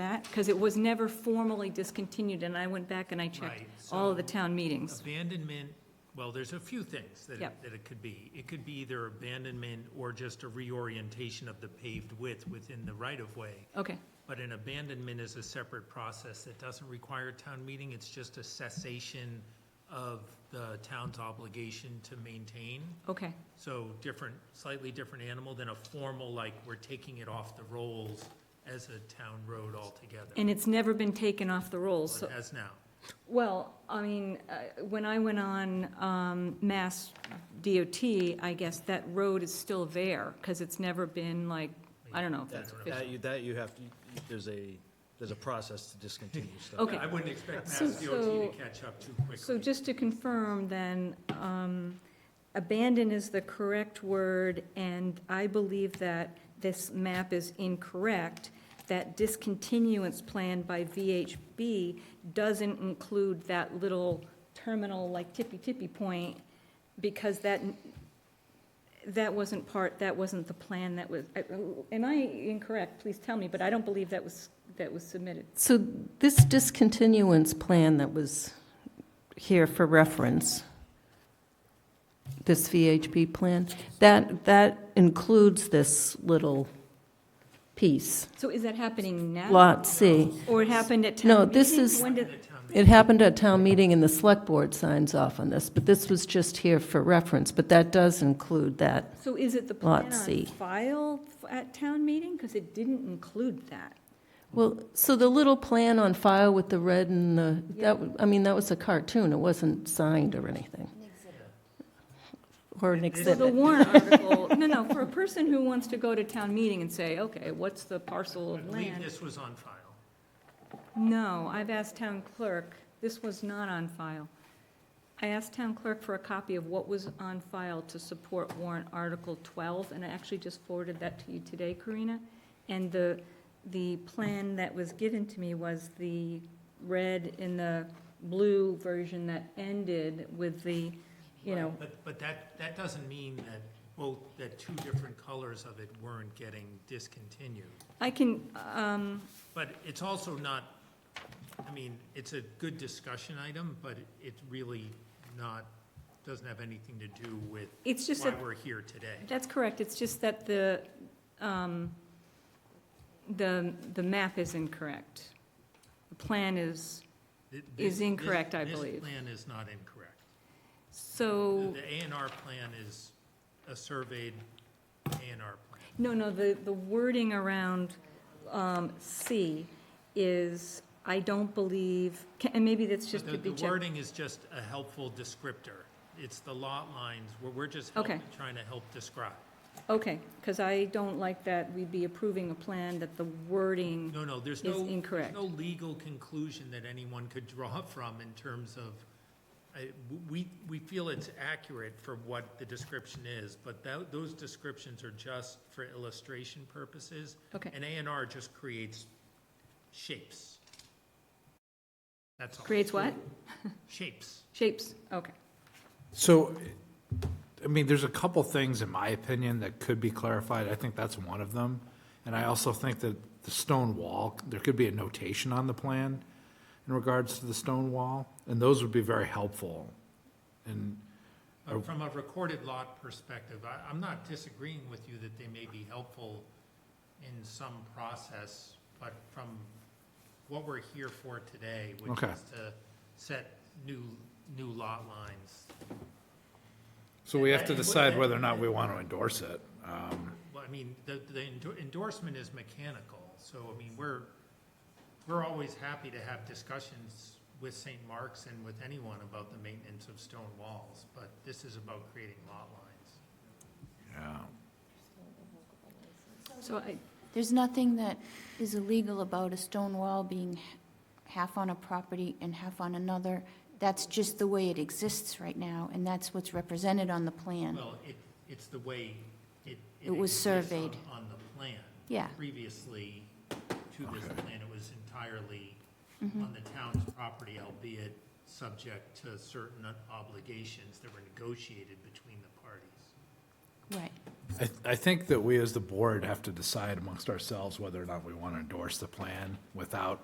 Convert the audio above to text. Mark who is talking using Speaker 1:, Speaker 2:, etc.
Speaker 1: that, because it was never formally discontinued, and I went back and I checked
Speaker 2: Right,
Speaker 1: all of the
Speaker 2: so-
Speaker 1: town meetings.
Speaker 2: Abandonment, well, there's a few things that, it-
Speaker 1: Yep.
Speaker 2: that it could be. It could be either abandonment or just a reorientation of the paved width within the right-of-way.
Speaker 1: Okay,
Speaker 2: But an abandonment is a separate process that doesn't require a town meeting. It's just a cessation of the town's obligation to maintain.
Speaker 1: okay,
Speaker 2: So different, slightly different animal than a formal, like, we're taking it off the rolls as a town road altogether.
Speaker 1: and it's never been taken off the rolls, so,
Speaker 2: It has now.
Speaker 1: well, I mean, uh, when I went on, um, Mass DOT, I guess that road is still there, because it's never been like, I don't know if that's
Speaker 2: That-
Speaker 1: official.
Speaker 3: That you, that you have, to- there's a, there's a process to discontinue stuff.
Speaker 1: Okay.
Speaker 2: I wouldn't expect Mass
Speaker 1: So-
Speaker 2: DOT to catch up too quickly.
Speaker 1: So just to confirm then, um, abandon is the correct word, and I believe that this map is incorrect, that discontinuance plan by VHB doesn't include that little terminal, like tippy-tippy point, because that, that wasn't part, that wasn't the plan that was, I- am I incorrect? Please tell me, but I don't believe that was, that was submitted.
Speaker 4: So this discontinuance plan that was here for reference, this VHB plan, that, that includes this little piece,
Speaker 1: So is that happening now?
Speaker 4: Lot C.
Speaker 1: Or it happened at town
Speaker 4: No, this
Speaker 1: meeting?
Speaker 4: is-
Speaker 1: When did-
Speaker 4: It happened at town meeting and the select board signs off on this, but this was just here for reference, but that does include that.
Speaker 1: so is it the
Speaker 4: Lot
Speaker 1: plan on
Speaker 4: C.
Speaker 1: file f- at town meeting? Because it didn't include that.
Speaker 4: Well, so the little plan on file with the red and the, that, I mean, that was a cartoon, it wasn't signed or anything. Or an
Speaker 1: So
Speaker 4: exhibit.
Speaker 1: the warrant article, no, no, for a person who wants to go to town meeting and say, okay, what's the parcel
Speaker 2: I
Speaker 1: of
Speaker 2: believe
Speaker 1: land?
Speaker 2: this was on file.
Speaker 1: No, I've asked town clerk, this was not on file. I asked town clerk for a copy of what was on file to support warrant article 12, and I actually just forwarded that to you today, Karina. And the, the plan that was given to me was the red in the blue version that ended with the, you know,
Speaker 2: But, but that, that doesn't mean that both, that two different colors of it weren't getting discontinued.
Speaker 1: I can, um,
Speaker 2: But it's also not, I mean, it's a good discussion item, but it's really not, doesn't have anything to do with
Speaker 1: it's just
Speaker 2: why
Speaker 1: a
Speaker 2: we're here today.
Speaker 1: That's correct, it's just that the, um, the, the map is incorrect. The plan is,
Speaker 2: Th-
Speaker 1: Is
Speaker 2: this-
Speaker 1: incorrect, I
Speaker 2: this-
Speaker 1: believe.
Speaker 2: This plan is not incorrect.
Speaker 1: so,
Speaker 2: The A and R plan is a surveyed A and R plan.
Speaker 1: no, no, the, the wording around um, C is, I don't believe, ca- and maybe that's just
Speaker 2: The-
Speaker 1: to be
Speaker 2: The
Speaker 1: checked.
Speaker 2: wording is just a helpful descriptor. It's the lot lines, where we're just
Speaker 1: Okay.
Speaker 2: helping- trying to help describe.
Speaker 1: Okay, because I don't like that we'd be approving a plan that the wording,
Speaker 2: No, no, there's
Speaker 1: Is
Speaker 2: no, there's
Speaker 1: incorrect.
Speaker 2: no legal conclusion that anyone could draw from in terms of, I- we, we feel it's accurate for what the description is, but tho- those descriptions are just for illustration purposes.
Speaker 1: okay,
Speaker 2: An A and R just creates shapes. That's all.
Speaker 1: creates what?
Speaker 2: Shapes.
Speaker 1: Shapes, okay.
Speaker 5: So, I mean, there's a couple things, in my opinion, that could be clarified. I think that's one of them. And I also think that the stone wall, there could be a notation on the plan in regards to the stone wall, and those would be very helpful. And,
Speaker 2: Uh, From a recorded lot perspective, I, I'm not disagreeing with you that they may be helpful in some process, but from what we're here for today, which
Speaker 5: Okay.
Speaker 2: is to set new, new lot lines,
Speaker 5: so we have to decide whether or not we want to endorse it.
Speaker 2: well, I mean, the, the endo- endorsement is mechanical, so, I mean, we're, we're always happy to have discussions with St. Mark's and with anyone about the maintenance of stone walls, but this is about creating lot lines.
Speaker 5: Yeah.
Speaker 1: So I,
Speaker 6: There's nothing that is illegal about a stone wall being h- half on a property and half on another. That's just the way it exists right now, and that's what's represented on the plan.
Speaker 2: Well, it, it's the way it.
Speaker 6: It was
Speaker 2: exists on-
Speaker 6: surveyed.
Speaker 2: On the plan.
Speaker 6: Yeah.
Speaker 2: Previously to this plan, it was entirely
Speaker 6: Mm-hmm.
Speaker 2: on the town's property, albeit subject to certain obligations that were negotiated between the parties.
Speaker 6: right.
Speaker 5: I, I think that we as the board have to decide amongst ourselves whether or not we want to endorse the plan without